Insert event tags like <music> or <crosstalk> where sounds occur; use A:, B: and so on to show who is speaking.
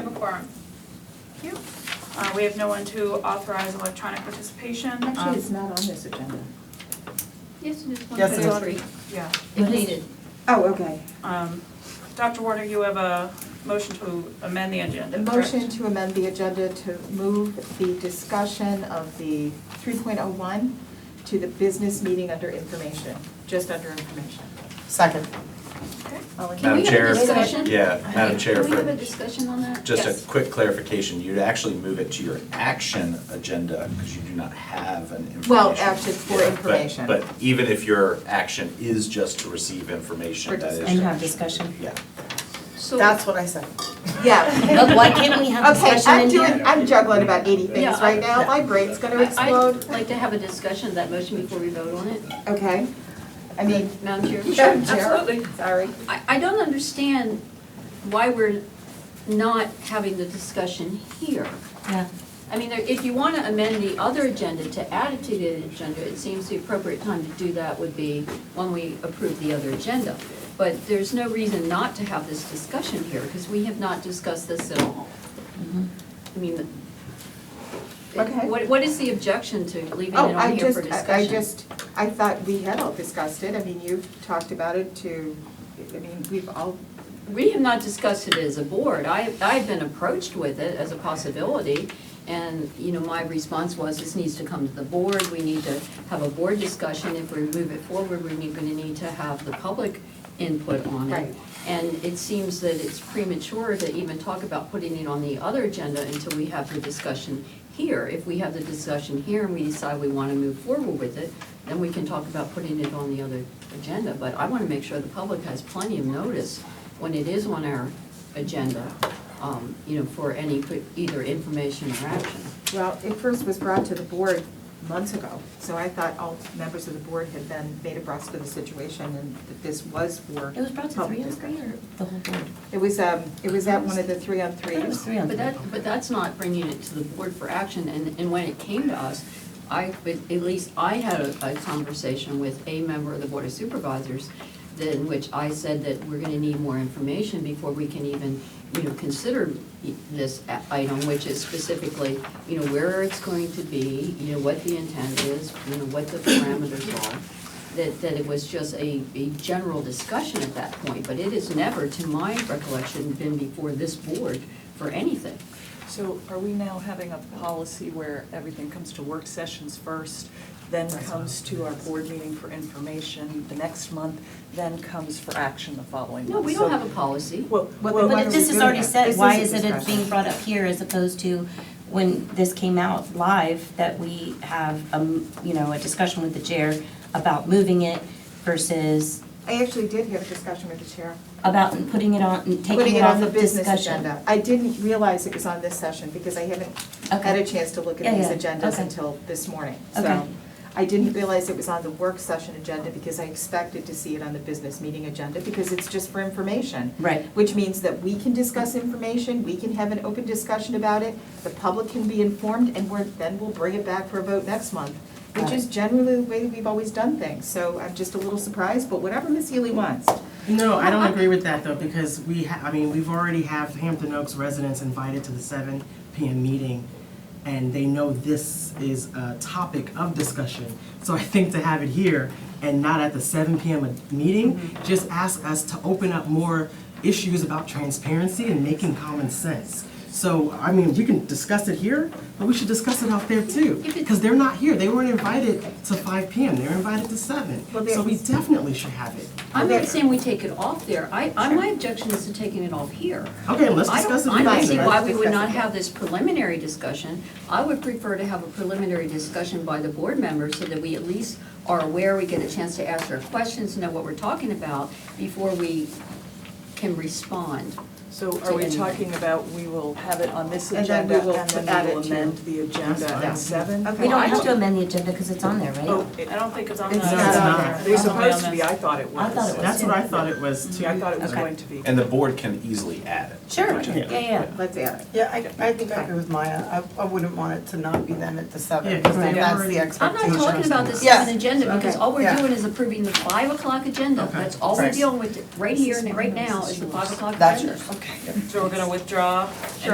A: quorum. Thank you. Uh, We have no one to authorize electronic participation. Um,
B: Actually, it's not on this agenda.
C: Yes, it is one
D: Yes, it is.
C: thirty-three,
A: Yeah.
C: if needed.
B: Oh, okay.
A: Um, Dr. Warner, you have a motion to amend the agenda,
B: The
A: correct?
B: motion to amend the agenda to move the discussion of the 3.01 to the business meeting under information, just under information.
D: Second.
A: Okay.
B: All in
C: Can we
E: Madam
B: favor?
C: have a
E: Chair.
C: discussion?
E: Yeah, Madam Chair,
C: Can we have a
E: for
C: discussion on that?
E: just
A: Yes.
E: a quick clarification, you'd actually move it to your action agenda because you do not have an information.
B: Well, action for
E: Yeah, but-
B: information.
E: But even if your action is just to receive information,
B: For
E: that is.
B: discussion.
F: And have discussion.
E: Yeah.
C: So,
D: That's what I said.
B: Yeah.
F: No, Why can't we
B: <laughs>
F: have
B: Okay,
F: discussion
B: I'm
F: in
B: doing,
F: here?
B: I'm juggling about 80
C: Yeah,
B: things
C: I-
B: right now. My brain's going to
C: I-
B: explode.
C: I'd like to have a discussion of that motion before we vote on it.
B: Okay. I mean,
C: Madam Chair?
B: Madam Chair.
A: Absolutely.
B: Sorry.
C: I, I don't understand why we're not having the discussion here.
F: Yeah.
C: I mean, there- if you want to amend the other agenda to add it to the agenda, it seems the appropriate time to do that would be when we approve the other agenda. But there's no reason not to have this discussion here, because we have not discussed this at all. I mean, the-
B: Mm-hmm. Okay.
C: what, what is the objection to leaving it
B: Oh, I
C: on here
B: just,
C: for discussion?
B: I- I just, I thought we had all discussed it. I mean, you've talked about it to, I mean, we've all,
C: We have not discussed it as a board. I, I've been approached with it as a possibility, and, you know, my response was, this needs to come to the board, we need to have a board discussion. If we move it forward, we're going to need to have the public input on it.
B: Right.
C: And it seems that it's premature to even talk about putting it on the other agenda until we have the discussion here. If we have the discussion here and we decide we want to move forward with it, then we can talk about putting it on the other agenda. But I want to make sure the public has plenty of notice when it is on our agenda, um, you know, for any, either information or action.
B: well, it first was brought to the board months ago. So I thought all members of the board had then made abreast of the situation and that this was for.
F: It was brought to
B: public
F: three on three
B: discussion.
F: or the whole board?
B: It was, um, it was at one of the three on
F: I thought
B: threes.
F: it was three on
C: But
F: three.
C: that, but that's not bringing it to the board for action, and, and when it came to us, I, but at least I had a, a conversation with a member of the Board of Supervisors, that, in which I said that we're gonna need more information before we can even, you know, consider i- this a- item, which is specifically, you know, where it's going to be, you know, what the intent is, you know, what the parameters are that, that it was just a, a general discussion at that point, but it has never, to my recollection, been before this board for anything.
G: So are we now having a policy where everything comes to work sessions first, then comes to our board meeting for information the next month, then comes for action the following month?
C: No, we
G: So-
C: don't have a policy.
G: Well,
B: But
G: well,
B: why
F: But
B: are
F: if
B: we
F: this is
B: doing
F: already
B: that?
F: said,
B: This
F: why
B: is
F: is
B: a
F: it it
B: discussion.
F: being brought up here as opposed to when this came out live, that we have, um, you know, a discussion with the chair about moving it versus
B: I actually did have a discussion with the chair.
F: about putting it on,
B: Putting
F: and taking it off
B: on the
F: of
B: business
F: discussion?
B: agenda. I didn't realize it was on this session because I haven't had
F: Okay.
B: a chance to look at
F: Yeah,
B: these
F: yeah,
B: agendas
F: okay.
B: until this morning.
F: Okay.
B: So I didn't realize it was on the work session agenda because I expected to see it on the business meeting agenda because it's just for information.
F: Right.
B: Which means that we can discuss information, we can have an open discussion about it, the public can be informed, and we're, then we'll bring it back for a vote next month, which
F: Got it.
B: is generally the way we've always done things. So I'm just a little surprised, but whatever Miss Healy wants.
H: No, I don't agree with that though, because we, ha- I mean, we've already have Hampton Oaks residents invited to the seven PM meeting, and they know this is a topic of discussion. So I think to have it here and not at the seven PM a- meeting,
C: Mm-hmm.
H: just asks us to open up more issues about transparency and making common sense. So, I mean, we can discuss it here, but we should discuss it out there too,
C: If it-
H: because they're not here, they weren't invited to five PM, they were invited to seven.
B: Well,
H: So we
B: there's-
H: definitely should have it.
C: I'm not saying we take it off there. I, I, my objection is to taking it off here.
H: Okay, let's
C: I
H: discuss
C: don't,
H: it.
C: I don't
B: later.
C: see
H: later.
C: why we would
B: Discuss
C: not
B: it.
C: have this preliminary discussion. I would prefer to have a preliminary discussion by the board members so that we at least are aware, we get a chance to ask our questions, know what we're talking about before we can respond.
G: So are we
C: To anything.
G: talking about we will have it on this
B: And then
G: agenda
B: we will
G: and
B: add
G: then we
B: it
G: will
B: to-
G: amend the agenda at
H: That's
G: seven?
B: Okay.
F: We
B: Well,
F: don't
B: I
F: have to amend the agenda because it's on there, right?
G: Oh, it-
A: I don't think it's on the.
B: It's
H: No,
B: not
H: it's
B: on
H: not.
B: there.
G: They're supposed to be, I thought it was.
F: I thought it was.
H: That's what I thought it was too.
G: Yeah, I thought it was
F: Okay.
G: going to be.
E: And the board can easily add it.
F: Sure, yeah, yeah.
B: Let's add it.
D: Yeah, I, I think I agree with Maya. I, I wouldn't want it to not be them at the
H: Yeah,
D: seven,
H: 'cause
D: because
H: they've
D: that's
H: already-
D: the
H: I'm
C: I'm
D: expectation.
C: not talking about this
D: Yeah.
C: as an agenda, because
B: Okay.
C: all we're
D: Yeah.
C: doing is approving the five o'clock agenda.
H: Okay.
C: That's all we're
D: Right.
C: dealing with, right here and right now is the five o'clock agenda.
D: That's yours, okay.
A: So we're gonna withdraw and